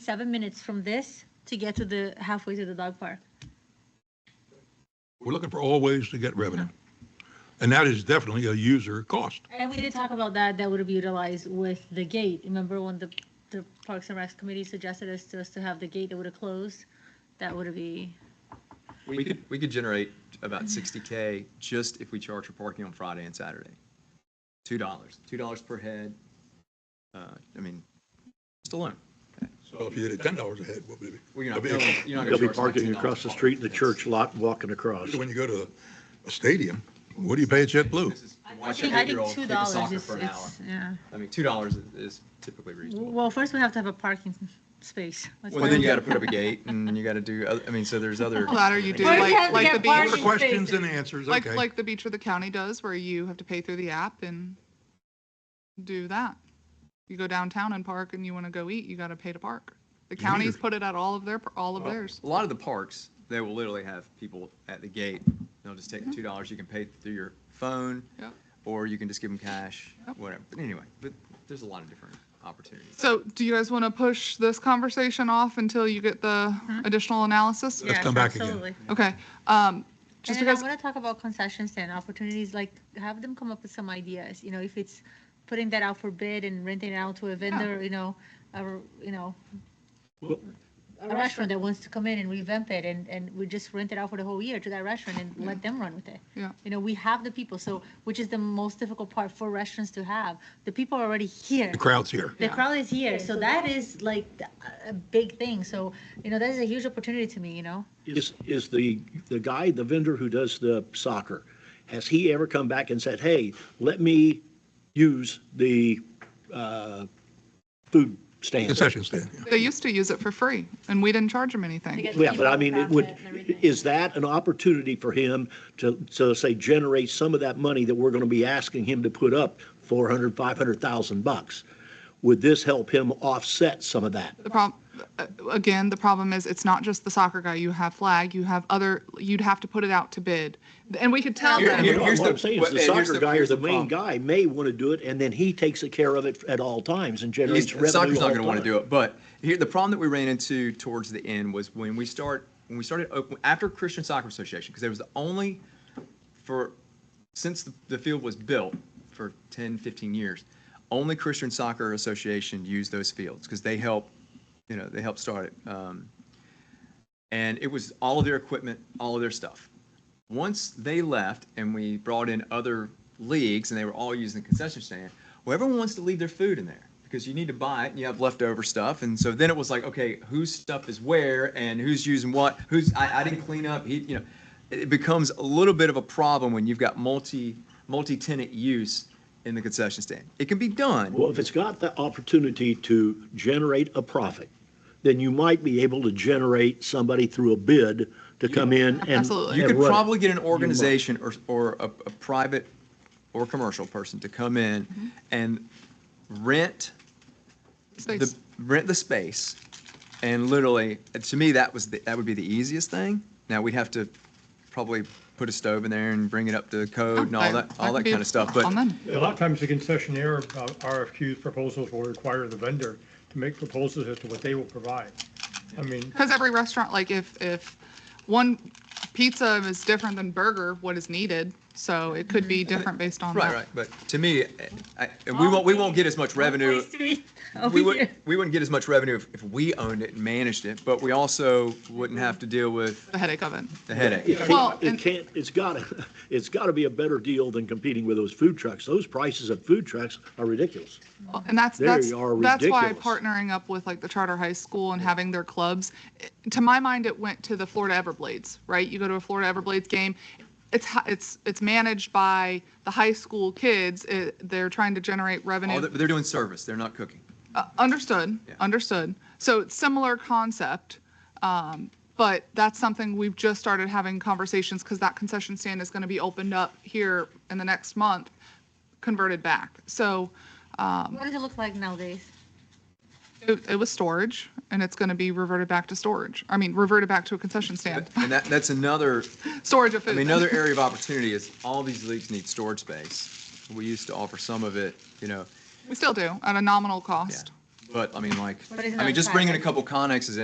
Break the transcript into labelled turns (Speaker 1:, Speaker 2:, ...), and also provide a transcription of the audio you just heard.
Speaker 1: seven minutes from this to get to the halfway to the dog park.
Speaker 2: We're looking for all ways to get revenue. And that is definitely a user cost.
Speaker 1: And we did talk about that, that would be utilized with the gate. Remember when the, the Parks and Recs Committee suggested us to us to have the gate that would have closed? That would be,
Speaker 3: We could, we could generate about sixty K just if we charge for parking on Friday and Saturday. Two dollars, two dollars per head. Uh, I mean, just alone.
Speaker 2: So if you did it ten dollars a head, what would it
Speaker 3: Well,
Speaker 2: be?
Speaker 3: you're not,
Speaker 2: It'd
Speaker 3: billing- you're not
Speaker 4: They'll
Speaker 3: gonna
Speaker 4: be
Speaker 3: charge somebody
Speaker 4: parking
Speaker 3: $10
Speaker 4: across the
Speaker 3: to park.
Speaker 4: street in the
Speaker 3: That's-
Speaker 4: church lot, walking across.
Speaker 2: When you go to a stadium, what do you pay at JetBlue?
Speaker 3: This is to
Speaker 1: I
Speaker 3: watch an
Speaker 1: think, I
Speaker 3: eight-year-old
Speaker 1: think two
Speaker 3: kick a
Speaker 1: dollars
Speaker 3: soccer
Speaker 1: is,
Speaker 3: for an hour.
Speaker 1: it's, yeah.
Speaker 3: I mean, two dollars is typically reasonable.
Speaker 1: Well, first we have to have a parking space. Let's
Speaker 3: Well,
Speaker 1: not-
Speaker 3: then you gotta put up a gate and you gotta do, oth- I mean, so there's other.
Speaker 5: Ladder you do
Speaker 1: Why do you have
Speaker 5: like,
Speaker 1: to get
Speaker 5: like the
Speaker 2: More
Speaker 1: parking?
Speaker 5: beach,
Speaker 2: questions and answers,
Speaker 5: like,
Speaker 2: okay.
Speaker 5: like the beach with the county does where you have to pay through the app and do that. You go downtown and park and you want to go eat, you got to pay to park. The counties put it at all of their, all of theirs.
Speaker 3: A lot of the parks, they will literally have people at the gate. They'll just take two dollars. You can pay through your phone.
Speaker 5: Yep.
Speaker 3: Or you can just give them cash,
Speaker 5: Yep.
Speaker 3: whatever. But anyway, but there's a lot of different opportunities.
Speaker 5: So do you guys want to push this conversation off until you get the additional analysis?
Speaker 2: Let's
Speaker 1: Yes,
Speaker 2: come back again.
Speaker 1: absolutely.
Speaker 5: Okay, um,
Speaker 1: And
Speaker 5: just
Speaker 1: then I
Speaker 5: because,
Speaker 1: want to talk about concessions and opportunities, like have them come up with some ideas, you know, if it's putting that out for bid and renting it out to a vendor, you know, or, you know, a restaurant that wants to come in and revamp it and, and we just rent it out for the whole year to that restaurant and let them run with it.
Speaker 5: Yeah.
Speaker 1: You know, we have the people, so, which is the most difficult part for restaurants to have. The people are already here.
Speaker 2: The crowd's here.
Speaker 1: The
Speaker 5: Yeah.
Speaker 1: crowd is here, so that is like a- a big thing. So, you know, that is a huge opportunity to me, you know?
Speaker 4: Is, is the, the guy, the vendor who does the soccer, has he ever come back and said, hey, let me use the uh, food stand?
Speaker 2: Concession stand.
Speaker 5: they used to use it for free and we didn't charge them anything.
Speaker 4: Yeah, but I mean, it would, is that an opportunity for him to, so say, generate some of that money that we're going to be asking him to put up, 400, 500,000 bucks? Would this help him offset some of that?
Speaker 5: The problem, again, the problem is it's not just the soccer guy. You have flag, you have other, you'd have to put it out to bid. And we could tell
Speaker 3: Here-
Speaker 5: them,
Speaker 3: here-
Speaker 4: What
Speaker 3: here's
Speaker 4: I'm
Speaker 3: the-
Speaker 4: saying is the
Speaker 3: and here's
Speaker 4: soccer
Speaker 3: the-
Speaker 4: guy or
Speaker 3: here's
Speaker 4: the
Speaker 3: the
Speaker 4: main guy may want to do it, and then he takes care of it at all times and
Speaker 3: He's-
Speaker 4: generates revenue.
Speaker 3: Soccer's not gonna
Speaker 4: all
Speaker 3: wanna
Speaker 4: the time.
Speaker 3: do it, but here, the problem that we ran into towards the end was when we start, when we started, op- after Christian Soccer Association, because there was the only, for, since the, the field was built for 10, 15 years, only Christian Soccer Association used those fields because they help, you know, they helped start it. Um, and it was all of their equipment, all of their stuff. Once they left and we brought in other leagues and they were all using the concession stand, well, everyone wants to leave their food in there because you need to buy it and you have leftover stuff. And so then it was like, okay, whose stuff is where and who's using what? Who's I, I didn't clean up. He, you know, it becomes a little bit of a problem when you've got multi multi tenant use in the concession stand. It can be done.
Speaker 4: Well, if it's got the opportunity to generate a profit, then you might be able to generate somebody through a bid to come in and.
Speaker 5: Absolutely.
Speaker 3: You
Speaker 4: and
Speaker 3: could
Speaker 4: run it.
Speaker 3: probably get an organization or, or a, a private or commercial person to come in
Speaker 5: Mm-hmm.
Speaker 3: and rent the,
Speaker 5: space.
Speaker 3: rent the space. And literally, uh, to me, that was, the- that would be the easiest thing. Now, we'd have to probably put a stove in there and bring it up to code and all that, all
Speaker 5: could
Speaker 3: that
Speaker 5: be
Speaker 3: kind of stuff, but.
Speaker 5: on them.
Speaker 6: A lot of times the concessionaire uh, RFQs proposals will require the vendor to make proposals as to what they will provide. I mean,
Speaker 5: Because every restaurant, like if, if one pizza is different than burger, what is needed, so it could be different based on
Speaker 3: Mm-hmm. Right,
Speaker 5: that.
Speaker 3: right, but to me, uh, I, and
Speaker 5: Oh,
Speaker 3: we won't, we won't get as much revenue. We wouldn't, we wouldn't get as much revenue if, if we owned it and managed it, but we also wouldn't have to deal with
Speaker 5: The headache of it.
Speaker 3: the headache.
Speaker 4: It
Speaker 5: Well,
Speaker 4: can't- It
Speaker 5: and-
Speaker 4: can't, it's gotta, it's gotta be a better deal than competing with those food trucks. Those prices of food trucks are ridiculous.
Speaker 5: Well, And that's,
Speaker 4: They
Speaker 5: that's,
Speaker 4: are
Speaker 5: that's why
Speaker 4: ridiculous.
Speaker 5: partnering up with like the charter high school and having their clubs, it- to my mind, it went to the Florida Everblades, right? You go to a Florida Everblades game, it's, hi- it's, it's managed by the high school kids. It, they're trying to generate
Speaker 3: Oh, they're-
Speaker 5: revenue.
Speaker 3: they're doing service, they're not cooking.
Speaker 5: Uh, Understood,
Speaker 3: Yeah.
Speaker 5: understood. So it's similar concept. um, But that's something we've just started having conversations because that concession stand is going to be opened up here in the next month, converted back. So
Speaker 1: What does it look like nowadays?
Speaker 5: It, it was storage, and it's going to be reverted back to storage. I mean, reverted back to a concession stand.
Speaker 3: And that, that's another,
Speaker 5: storage of
Speaker 3: I
Speaker 5: food.
Speaker 3: mean, another area of opportunity is all these leagues need storage space. We used to offer some of it, you know,
Speaker 5: we still do at a nominal
Speaker 3: yeah.
Speaker 5: cost.
Speaker 3: But I mean, like,
Speaker 1: But isn't
Speaker 3: I
Speaker 1: that
Speaker 3: mean, just bringing a
Speaker 1: private?
Speaker 3: couple connexes in.